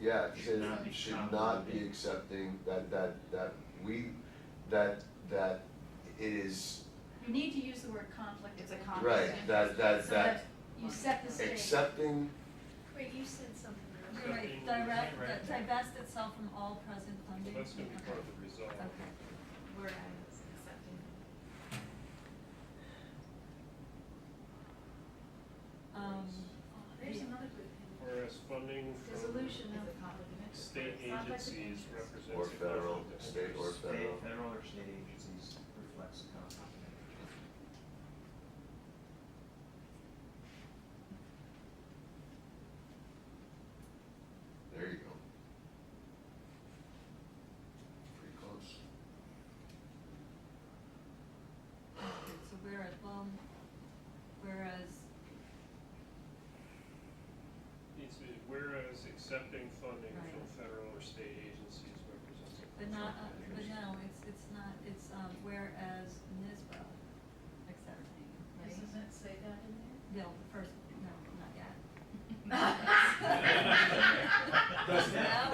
Yeah, it Should should, not be should compensated. not be accepting that, that, that we, that, that it is, You need to use the word conflict. It's a of conflict. right, interest. that, that, So that You set the stage. accepting, Wait, you said something earlier. Right, direct, uh, divest itself from all present funding. That's gonna be part of the resolve. Okay. We're accepting. Um, Oh, There's another good thing. Whereas funding from Dissolution It's of a conflict of interest. state It's not like the agencies interest. represents. or a federal, conflict of state or interest. State, federal. federal or state agencies reflects a conflict of interest. There you go. Pretty close. okay, so whereas, well, whereas, Needs to be, whereas accepting funding Right. from federal or state agencies represents a. but not, uh, conflict of but interest. no, it's, it's not, it's, um, whereas NISBA accepting, right? Doesn't that say that in there? No, the first, no, not yet. Does now.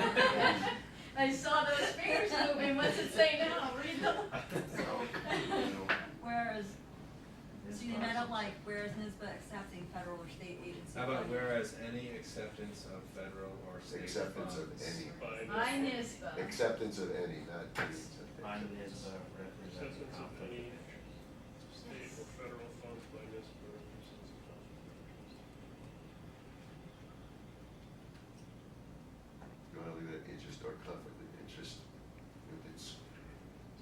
I saw those fingers moving, what's it say now, read them. Whereas, This so you I process. don't like, whereas NISBA accepting federal or state agency. How about funding. whereas any acceptance of federal or state Acceptance of funds. any. By By this- NISBA. Acceptance of any, not the acceptance. Mine is uh, represents a Acceptance of conflict of any- interest. State or federal funds by NISBA represents a conflict of interest. You wanna leave that interest or conflict of interest, if it's,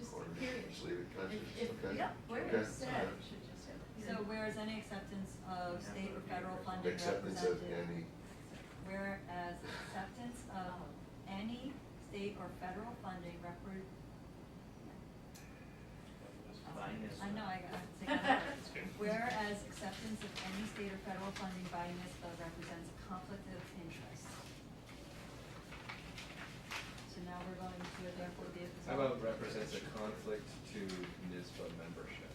Just or period. just leave it conscious, If- if- okay? Yeah, where Okay, it's said, alright. should just have. a So period. whereas any acceptance of state or federal funding represented. Acceptance of any, Whereas acceptance of any state or federal funding repre- By NISBA. I know, I got it. Take that out. It's good. Whereas acceptance of any state or federal funding by NISBA represents a conflict of interest. So now we're going to therefore be. How about represents a conflict to NISBA membership?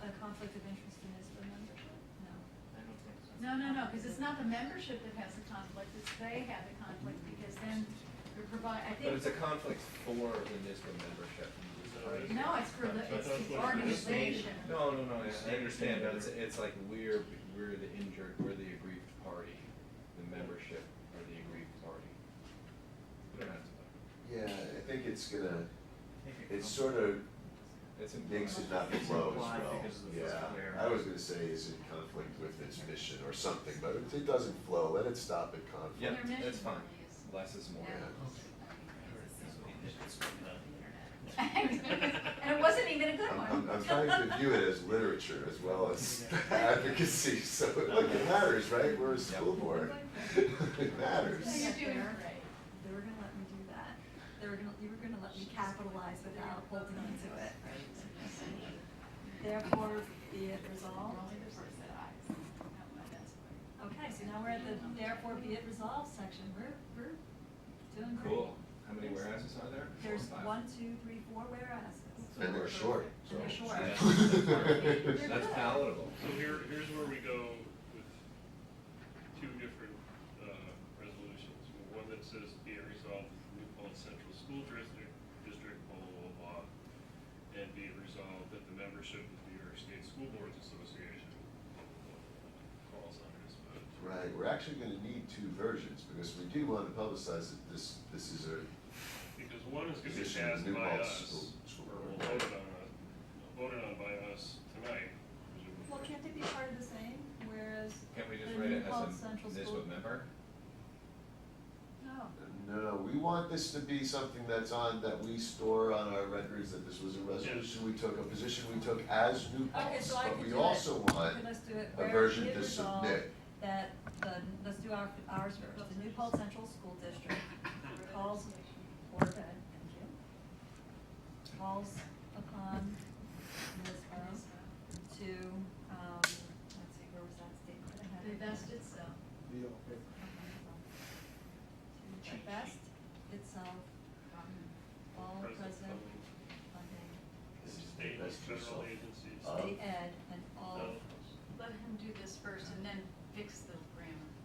A conflict of interest in NISBA membership? No. I don't think so. No, no, no, because it's not the membership that has the conflict, it's they have the conflict, because then you're provide, I think. But it's a conflict for the NISBA membership. right? No, it's for the, it's That's the what it is. organization. No, no, no, State I- I or understand, but federal. it's, it's like we're, we're the injured, we're the aggrieved party, the membership or the aggrieved party. We don't have to, yeah, vote. I think it's gonna, I think a it's conflict- sort of it's implied. makes it not flow as well. Implied because of the physical error. Yeah, I was gonna say is in conflict with its mission or something, but if it doesn't flow, let it stop at conflict. Yeah, Their mission that's fine, really is- less is more. Yeah. It's not- And it wasn't even a good I'm, one. I'm, I'm trying to view it as literature as well as advocacy, so look, it matters, right? We're a school board. It So matters. you're doing great. They were gonna let me do that. They were gonna, you were gonna let me capitalize without holding on to it, right? Therefore, be it resolved. Only the person that I. Okay, so now we're at the therefore be it resolved section. We're, we're doing great. Cool, how many whereas's are there? Four or There's five? one, two, three, four whereas's. And they're short, so. And they're short. That's palatable. So here, here's where we go with two different, uh, resolutions. One that says be it resolved, that the New Paltz Central School District, District, blah, blah, blah, blah. And be it resolved that the membership of the New York State School Boards Association, blah, blah, blah, blah, calls on this, but. Right, we're actually gonna need two versions, because we do wanna publicize that this, this is a, Because one is gonna be Position of passed new by Paltz us, School- School or Board. voted on, us- voted on by us tonight, presumably. Well, can't they be part of the same, whereas Can't we the just New write it as Paltz a Central School? NISBA member? No. no, no, we want this to be something that's on, that we store on our records, that this was a resolution we took, a position we took as New Okay, Paltz, so I but could do we it. also want Okay, let's do it. a Whereas version be it to resolved submit. That the, let's do our, ours first. The New Paltz Central School District calls for the, thank you, calls upon NISBA to, um, let's see, where was that statement? I had it. Divest itself. To divest itself um, from all Present present funding. funding, State, and That's true, so- federal agencies. Uh, state ed and all No. Let him do this first and then fix the